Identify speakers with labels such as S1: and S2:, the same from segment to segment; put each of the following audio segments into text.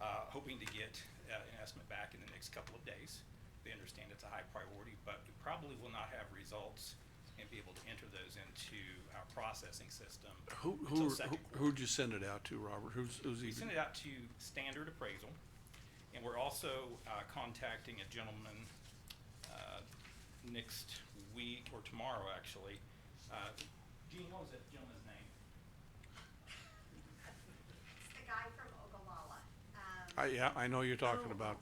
S1: hoping to get uh, an estimate back in the next couple of days. They understand it's a high priority, but we probably will not have results and be able to enter those into our processing system
S2: Who,
S1: until
S2: who,
S1: second
S2: who-
S1: quarter.
S2: who'd you send it out to, Robert? Who's, who's
S1: We
S2: even?
S1: sent it out to Standard Appraisal, and we're also uh, contacting a gentleman uh, next week, or tomorrow, actually. Uh, Gene, what was that gentleman's name?
S3: It's the guy from Ogallala. Um,
S2: I, yeah, I know you're talking about.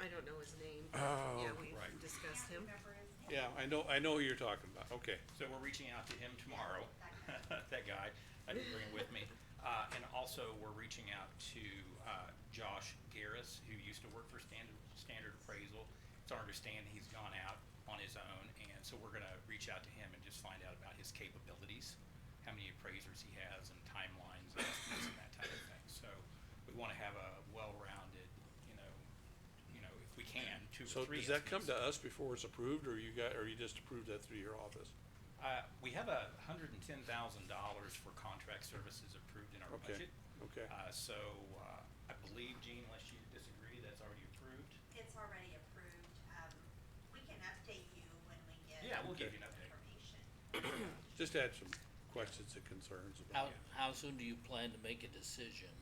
S4: I don't know his name.
S2: Oh,
S4: Yeah, we
S1: right.
S4: discussed him.
S3: Can't remember his name.
S2: Yeah, I know, I know who you're talking about, okay.
S1: So we're reaching out to him tomorrow, that guy, I didn't bring him with me. Uh, and also, we're reaching out to, uh, Josh Garris, who used to work for Standard, Standard Appraisal. It's our understanding he's gone out on his own, and so we're gonna reach out to him and just find out about his capabilities, how many appraisers he has and timelines and estimates and that type of thing. So we wanna have a well-rounded, you know, you know, if we can, two
S2: So
S1: or three.
S2: does that come
S1: estimates.
S2: to us before it's approved, or you got, or you just approved that through your office?
S1: Uh, we have a hundred and ten thousand dollars for contract services approved in our budget.
S2: Okay, okay.
S1: Uh, so, uh, I believe, Gene, unless you disagree, that's already approved.
S3: It's already approved. Um, we can update you when we get.
S1: Yeah, we'll give you
S2: Okay.
S1: an update.
S3: Information.
S2: Just had some questions and concerns
S5: How,
S2: about it.
S5: how soon do you plan to make a decision?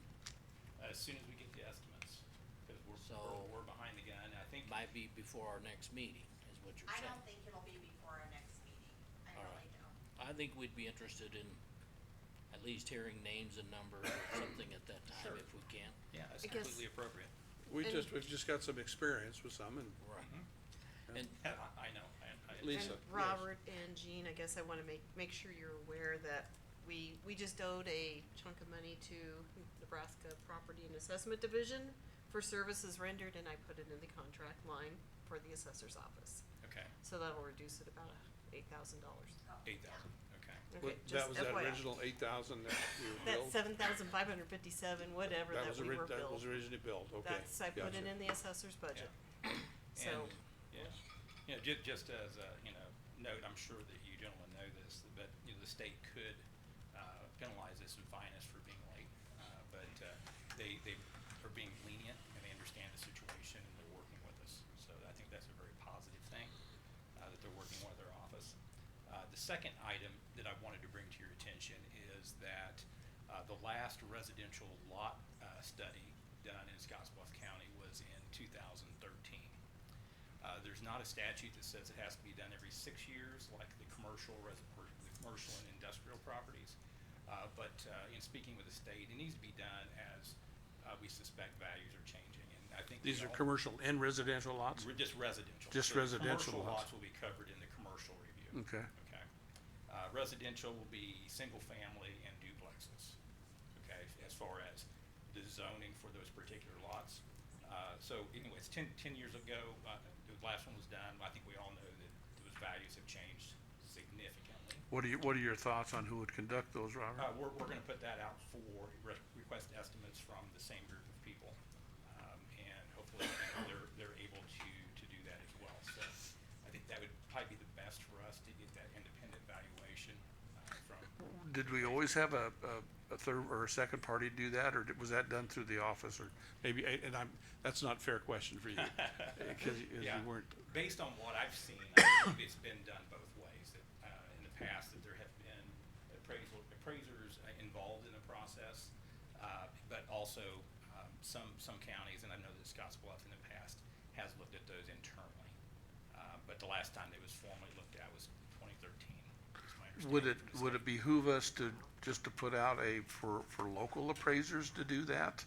S1: uh, As soon as we get the estimates, cause we're,
S5: So-
S1: we're, we're behind the gun, I think.
S5: Might be before our next meeting, is what you're
S3: I
S5: saying.
S3: don't think it'll be before our next meeting. I
S5: All
S3: really
S5: right.
S3: don't.
S5: I think we'd be interested in at least hearing names and numbers or something at that time
S1: Sure.
S5: if we can.
S1: Yeah, that's
S4: I guess-
S1: completely appropriate.
S2: We
S4: And-
S2: just, we've just got some experience with some, and
S5: Right.
S2: Yeah.
S5: And
S1: I, I know, I, I.
S2: Lisa.
S4: And
S2: yes.
S4: Robert and Jean, I guess I wanna make, make sure you're aware that we, we just owed a chunk of money to Nebraska Property and Assessment Division for services rendered, and I put it in the contract line for the assessor's office.
S1: Okay,
S4: So that'll reduce it about eight thousand dollars.
S1: eight thousand, okay.
S4: Okay,
S2: what- that
S4: just
S2: was that
S4: FYI.
S2: original eight thousand that we were
S4: That
S2: billed?
S4: seven thousand five hundred fifty-seven, whatever
S2: That
S4: that
S2: was
S4: we
S2: ori-
S4: were
S2: That
S4: billed.
S2: was originally billed, okay.
S4: That's, I put it
S2: gotcha.
S4: in the assessor's budget. So,
S1: And, yeah, you know, ju- just as a, you know, note, I'm sure that you gentlemen know this, but, you know, the state could, uh, penalize us and fine us for being late. Uh, but, uh, they, they are being lenient and they understand the situation and they're working with us. So I think that's a very positive thing, uh, that they're working with our office. Uh, the second item that I wanted to bring to your attention is that, uh, the last residential lot, uh, study done in Scottsbluff County was in two thousand thirteen. Uh, there's not a statute that says it has to be done every six years, like the commercial, res- or the commercial and industrial properties. Uh, but, uh, in speaking with the state, it needs to be done as, uh, we suspect values are changing, and I think. we
S2: These are
S1: all-
S2: commercial and residential lots?
S1: Re- Just residential. So
S2: Just
S1: the
S2: residential
S1: Commercial lots
S2: lots.
S1: will be covered in the commercial review.
S2: Okay.
S1: Okay. Uh, residential will be single-family and duplexes, okay, as far as the zoning for those particular lots. Uh, so anyways, ten, ten years ago, uh, the last one was done, I think we all know that those values have changed significantly.
S2: What are you, what are your thoughts on who would conduct those, Robert?
S1: Uh, we're, we're gonna put that out for re- request estimates from the same group of people. Um, and hopefully you know, they're, they're able to, to do that as well. So I think that would probably be the best for us to get that independent valuation, uh, from,
S2: Did we always have a, a, a third or a second party do that, or did- was that done through the office, or maybe, I- and I'm, that's not a fair question for you. eh, Cause you- 'cause
S1: Yeah.
S2: you weren't,
S1: based on what I've seen, I believe it's been done both ways. That, uh, in the past, that there have been appraisal, appraisers uh, involved in the process, uh, but also, um, some, some counties, and I know that Scottsbluff in the past has looked at those internally. Uh, but the last time it was formally looked at was twenty thirteen, is my understanding.
S2: would it,
S1: from the
S2: would it behoove us to, just to put out a, for, for local appraisers to do that?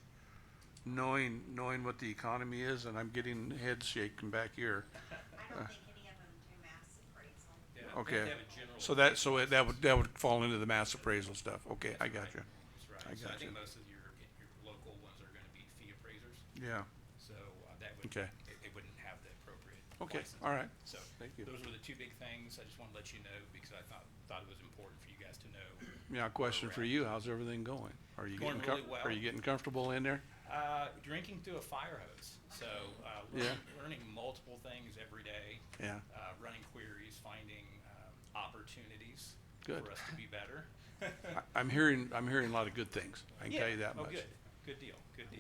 S2: Knowing, knowing what the economy is, and I'm getting head shaking back here.
S3: I don't think any of them do mass appraisal.
S1: state. Yeah,
S2: Okay.
S1: they have a general
S2: So that, so
S1: appraisal
S2: it- that would, that would fall into the mass appraisal stuff. Okay, I got you.
S1: That's right.
S2: I
S1: So I
S2: gotcha.
S1: think most of your, your local ones are gonna be fee appraisers.
S2: Yeah.
S1: So uh, that would,
S2: Okay.
S1: it it wouldn't have the appropriate.
S2: Okay,
S1: license.
S2: all right.
S1: So
S2: Thank you.
S1: those were the two big things. I just want to let you know because I thought, thought it was important for you guys to know.
S2: Now, question for
S1: Correct.
S2: you, how's everything going? Are you
S1: Going
S2: getting, com-
S1: really well.
S2: are you getting comfortable in there?
S1: Uh, Drinking through a fire hose, so uh,
S2: Yeah.
S1: learning learning multiple things every day.
S2: Yeah.
S1: uh, Running queries, finding um, opportunities
S2: Good.
S1: for us to be better.
S2: I- I'm hearing, I'm hearing a lot of good things, I can tell
S1: Yeah.
S2: you that
S1: Oh,
S2: much.
S1: good. Good deal, good deal.